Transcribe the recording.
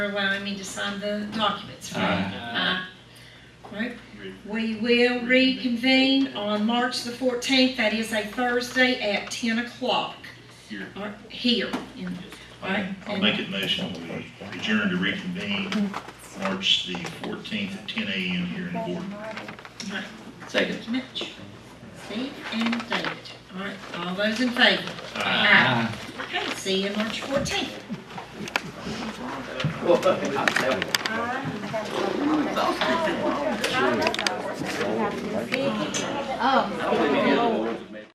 for allowing me to sign the documents for you. Aye. Aye. Right. We will reconvene on March the fourteenth, that is a Thursday at ten o'clock. Here. Or Here, in- right? I'll make it motion, we adjourn to reconvene March the fourteenth at ten AM here in Gordon. Right. Second. Thank you much. Steve and David, all right, all those in favor? Aye. Okay, see you March fourteenth. Oh, no.